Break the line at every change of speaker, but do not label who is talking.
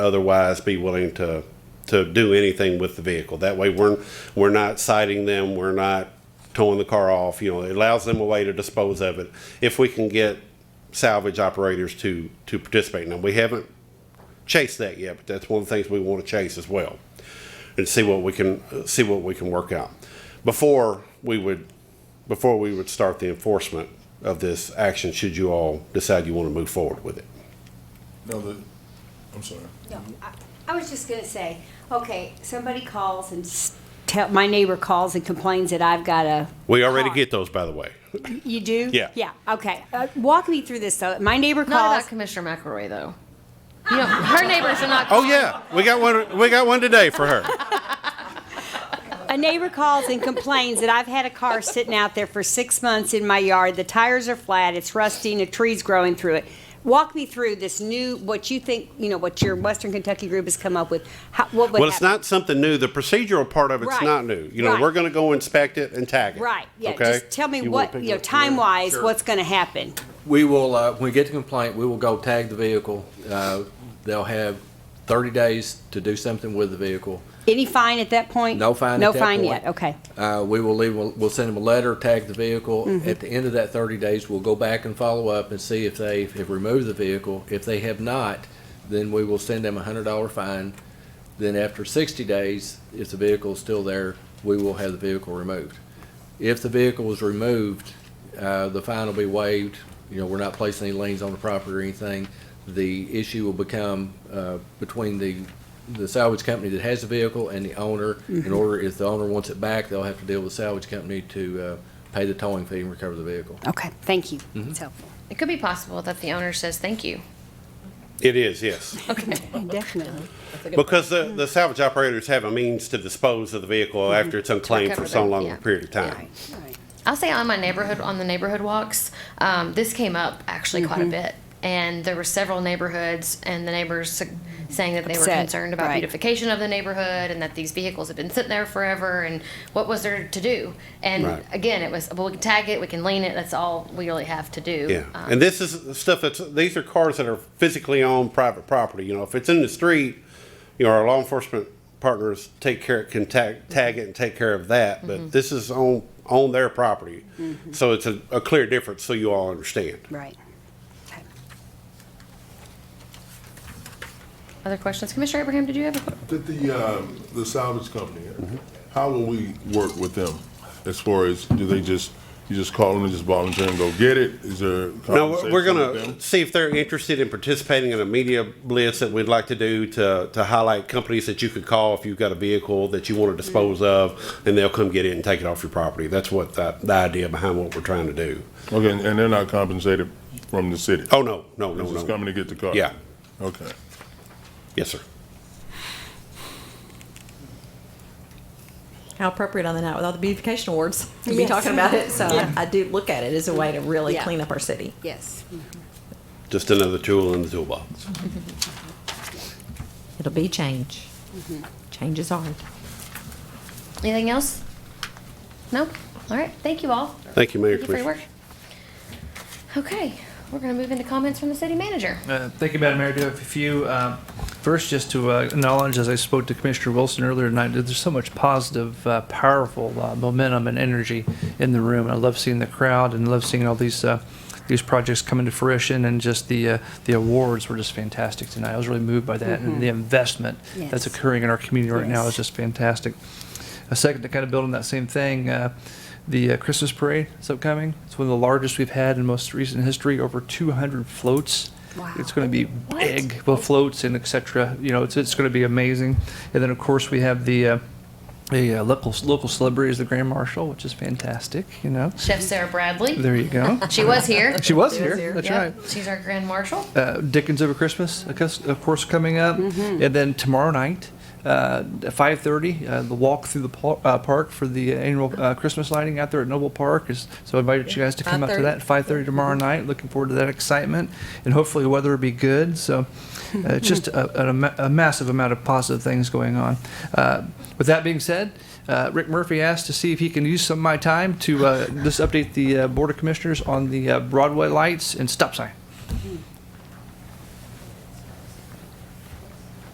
otherwise be willing to, to do anything with the vehicle. That way, we're, we're not citing them, we're not towing the car off, you know, it allows them a way to dispose of it. If we can get salvage operators to, to participate. Now, we haven't chased that yet, but that's one of the things we want to chase as well. And see what we can, see what we can work out. Before we would, before we would start the enforcement of this action, should you all decide you want to move forward with it.
No, the, I'm sorry.
No, I- I was just gonna say, okay, somebody calls and s- tell, my neighbor calls and complains that I've got a.
We already
car.
get those, by the way.
You do?
Yeah.
Yeah, okay. Uh, Walk me through this though. My neighbor
Not
calls.
about Commissioner McElroy, though. You know, her neighbors are not.
Oh yeah, we got one. We got one today for her.
A neighbor calls and complains that I've had a car sitting out there for six months in my yard. The tires are flat, it's rusting, a tree's growing through it. Walk me through this new, what you think, you know, what your Western Kentucky group has come up with. How, what would
Well, it's
happen?
not something new. The procedural part of it's
Right.
not new. You know,
Right.
we're going to go inspect it and tag it.
Right, yeah,
Okay?
just tell me
You wanna
what,
pick
you know,
up from there?
time wise,
Sure.
what's gonna happen?
We will, uh, when we get the complaint, we will go tag the vehicle. Uh, They'll have 30 days to do something with the vehicle.
Any fine at that point?
No fine at
No
that
fine
point.
yet, okay.
Uh, We will leave, we'll we'll send them a letter, tag the vehicle. At the end of that 30 days, we'll go back and follow up and see if they have removed the vehicle. If they have not, then we will send them a $100 fine. Then after 60 days, if the vehicle is still there, we will have the vehicle removed. If the vehicle was removed, uh, the fine will be waived. You know, we're not placing any liens on the property or anything. The issue will become uh, between the, the salvage company that has the vehicle and the owner. In order, if the owner wants it back, they'll have to deal with the salvage company to uh, pay the towing fee and recover the vehicle.
Okay, thank you.
Mm-hmm.
It's helpful.
It could be possible that the owner says thank you.
It is, yes.
Definitely.
Because the, the salvage operators have a means to dispose of the vehicle
Mm-hmm.
after it's unclaimed for
recover
so
them,
long a
yeah.
period of time.
I'll say on my neighborhood on the neighborhood walks, um, this came up actually quite a bit, and there were several neighborhoods and the neighbors su- saying that they
Upset,
were concerned about
right.
beautification of the neighborhood and that these vehicles had been sitting there forever and what was there to do? And
Right.
again, it was well we can tag it, we can lean it. That's all we really have to do.
Yeah,
Um,
and this is stuff that's, these are cars that are physically on private property, you know, if it's in the street, you know, our law enforcement partners take care, can tag, tag it and take care of that, but this is on, on their property. So it's a, a clear difference, so you all understand.
Right. Okay.
other questions, Commissioner Abraham? Did you have a
Did the, um, the salvage company, how will we work with them? As far as, do they just, you just call them and just volunteer and go get it? Is there
No, we're-
compensation
we're
with
gonna
them?
see if they're interested in participating in a media blitz that we'd like to do to, to highlight companies that you could call if you've got a vehicle that you want to dispose of, and they'll come get it and take it off your property. That's what the, the idea behind what we're trying to do.
Okay, and- and they're not compensated from the city?
Oh, no, no,
They're
no,
just
no.
coming to get the car?
Yeah.
Okay.
Yes, sir.
How appropriate on the night with all the beautification awards to be talking about it. So I, I do look at it as a way to really
Yeah.
clean up our city.
Yes.
Just another tool in the toolbox.
It'll be change. Change is hard.
anything else? No. All right. Thank you all.
Thank you, Mayor
Thank you for your
Commissioner.
work. Okay, we're gonna move into comments from the city manager.
Uh, Thank you, Madam Mayor. I do have a few. um, First, just to uh, acknowledge, as I spoke to Commissioner Wilson earlier tonight, that there's so much positive, uh, powerful uh, momentum and energy in the room. I love seeing the crowd and love seeing all these, uh, these projects coming to fruition and just the, uh, the awards were just fantastic tonight. I was really moved by that and the investment
Mm-hmm. Yes.
that's occurring in our community right now
Yes.
is just fantastic. A second to kind of build on that same thing, uh, the uh, Christmas parade is upcoming. It's one of the largest we've had in most recent history, over 200 floats.
Wow.
It's going to be big with floats and et cetera. You know, it's, it's going to be amazing. And then, of course, we have the, uh, the uh, local, local celebrities, the Grand Marshal, which is fantastic, you know.
Chef Sarah Bradley.
There you go.
She was here.
She was
She was
here.
here.
That's
Yep,
right.
She's our grand marshal.
uh, Dickens Over Christmas, of cous- of course, coming up, and then tomorrow night, uh, at 5:30, uh, the walk through the par- uh, park for the annual uh, Christmas lighting out there at Noble Park. Is so I invited you guys to come up to that at 5:30 tomorrow night. Looking forward to that excitement, and hopefully the weather will be good. So uh, it's just a, a, ma- a massive amount of positive things going on. Uh, with that being said. Uh, Rick Murphy asked to see if he can use some of my time to uh, just update the uh, Board of Commissioners on the uh, Broadway lights and stop sign.